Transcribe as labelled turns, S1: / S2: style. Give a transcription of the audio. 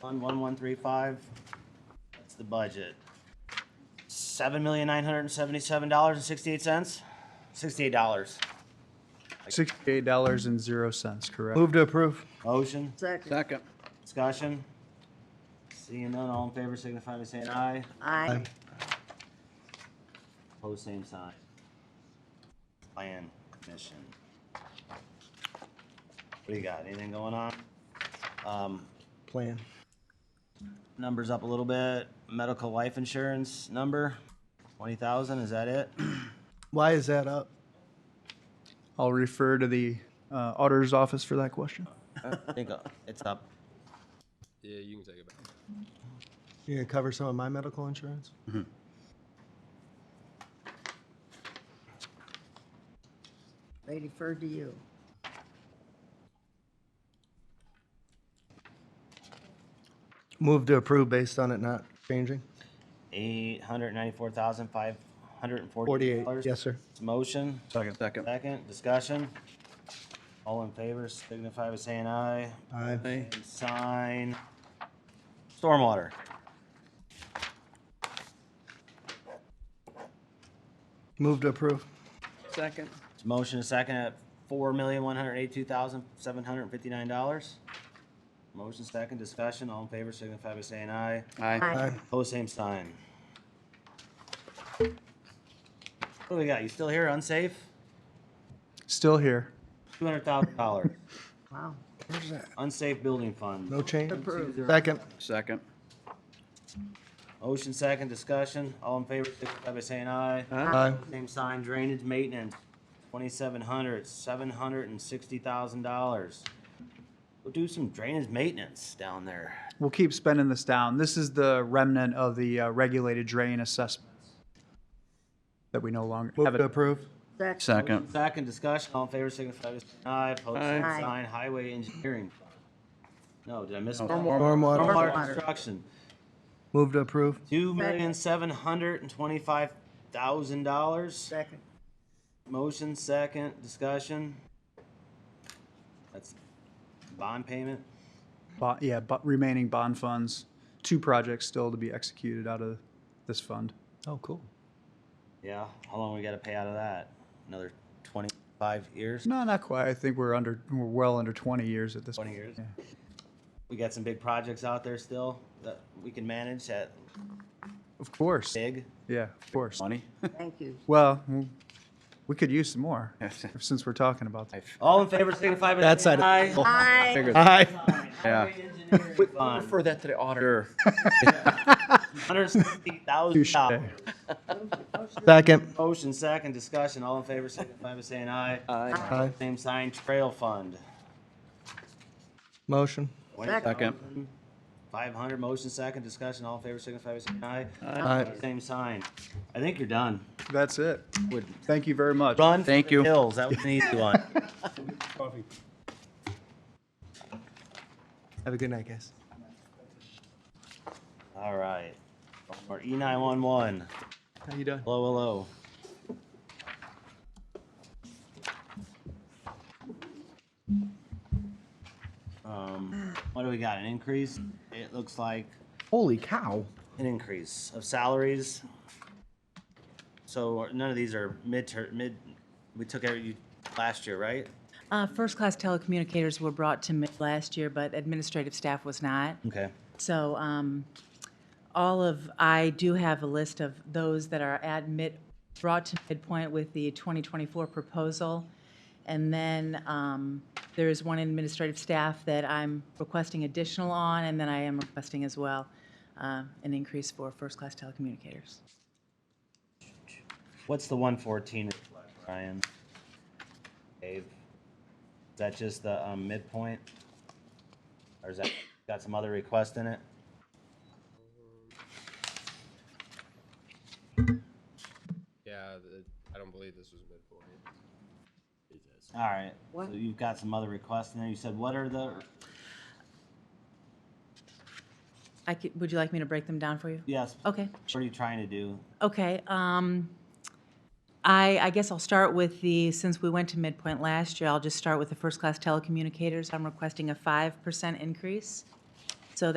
S1: Fund one one three five, that's the budget. Seven million nine hundred and seventy-seven dollars and sixty-eight cents, sixty-eight dollars.
S2: Sixty-eight dollars and zero cents, correct?
S3: Move to approve.
S1: Motion,
S4: Second.
S5: Second.
S1: discussion? Seeing none, all in favor signify by saying aye.
S4: Aye.
S1: Pose same sign. Plan commission. What do you got? Anything going on? Um,
S3: Plan.
S1: numbers up a little bit. Medical life insurance number, twenty thousand, is that it?
S3: Why is that up?
S2: I'll refer to the uh, auditor's office for that question.
S1: I think uh, it's up.
S6: Yeah, you can take it back.
S3: You're gonna cover some of my medical insurance?
S4: They defer to you.
S3: Move to approve based on it not changing.
S1: Eight hundred ninety-four thousand, five hundred and forty
S3: Forty-eight,
S1: dollars.
S3: yes, sir.
S1: Motion,
S5: Second. Second.
S1: second, discussion. All in favor signify by saying aye.
S3: Aye.
S5: Aye.
S1: And Sign. Stormwater.
S3: Move to approve.
S5: Second.
S1: It's motion a second at four million, one hundred eighty-two thousand, seven hundred and fifty-nine dollars. Motion second, discussion, all in favor signify by saying aye.
S5: Aye.
S3: Aye.
S1: Pose same sign. What do we got? You still here, unsafe?
S2: Still here.
S1: Two hundred thousand dollars,
S4: Wow.
S3: Where's that?
S1: unsafe building fund.
S3: No change?
S4: Approved.
S3: Second.
S5: Second.
S1: Motion second, discussion, all in favor signify by saying aye.
S3: Aye.
S1: Same sign, drainage maintenance, twenty-seven hundred, seven hundred and sixty thousand dollars. Go do some drainage maintenance down there.
S2: We'll keep spending this down. This is the remnant of the uh, regulated drain assessments that we no longer
S3: Move
S2: have.
S3: to
S2: it.
S3: approve.
S4: Second.
S5: Second.
S1: Second discussion, all in favor, signify by saying aye. Opposed, same
S4: Aye. Aye.
S1: sign, highway engineering. fund. No, did I miss?
S3: Stormwater.
S1: Stormwater
S4: Stormwater.
S1: construction,
S3: Move to approve.
S1: two million, seven hundred and twenty-five thousand dollars.
S4: Second.
S1: Motion second, discussion. That's bond payment.
S2: Bo- Yeah, but remaining bond funds, two projects still to be executed out of this fund.
S3: Oh, cool.
S1: Yeah, how long we gotta pay out of that? Another twenty-five years?
S2: No, not quite. I think we're under, we're well under 20 years at this point.
S1: 20 years.
S2: Yeah.
S1: We got some big projects out there still that we can manage that
S2: Of course.
S1: big.
S2: Yeah, of course.
S5: Money.
S4: Thank you.
S2: Well, w- we could use some more since we're talking about that.
S1: All in favor, signify by
S3: That
S1: saying
S3: side
S1: aye.
S4: Aye.
S3: of- Aye.
S5: Yeah.
S1: Fund,
S5: that to the auditor.
S1: $160,000.
S3: Second.
S1: Motion second, discussion, all in favor, signify by saying aye.
S5: Aye.
S3: Aye.
S1: Same sign, trail fund.
S3: Motion.
S5: Second.
S1: 500, motion second, discussion, all in favor, signify by saying aye.
S3: Aye.
S1: Same sign. I think you're done.
S2: That's it. Thank you very much.
S1: Run. for
S5: Thank
S1: the
S5: you.
S1: Hills, that was an easy one.
S3: Have a good night, guys.
S1: All right. E Or E911.
S3: How you doing?
S1: Hello, hello. Um, what do we got? An increase? It looks like
S3: Holy cow.
S1: an increase of salaries. So none of these are mid-term, mid, we took every, you- last year, right?
S7: Uh, First-class telecommunicators were brought to mid last year, but administrative staff was not.
S1: Okay.
S7: So um, all of, I do have a list of those that are at mid, brought to midpoint with the 2024 proposal. And then um, there is one administrative staff that I'm requesting additional on, and then I am requesting as well uh, an increase for first-class telecommunicators.
S1: What's the 114 reflect, Ryan? Dave? Is that just the um, midpoint? Or is that, got some other request in it?
S6: Yeah, the, I don't believe this was midpoint.
S1: All right, so
S4: What?
S1: you've got some other requests in there. You said, what are the,
S7: I could, would you like me to break them down for you?
S1: yes, what
S7: Okay.
S1: are you trying to do?
S7: Okay, um, I, I guess I'll start with the, since we went to midpoint last year, I'll just start with the first-class telecommunicators. I'm requesting a five percent increase.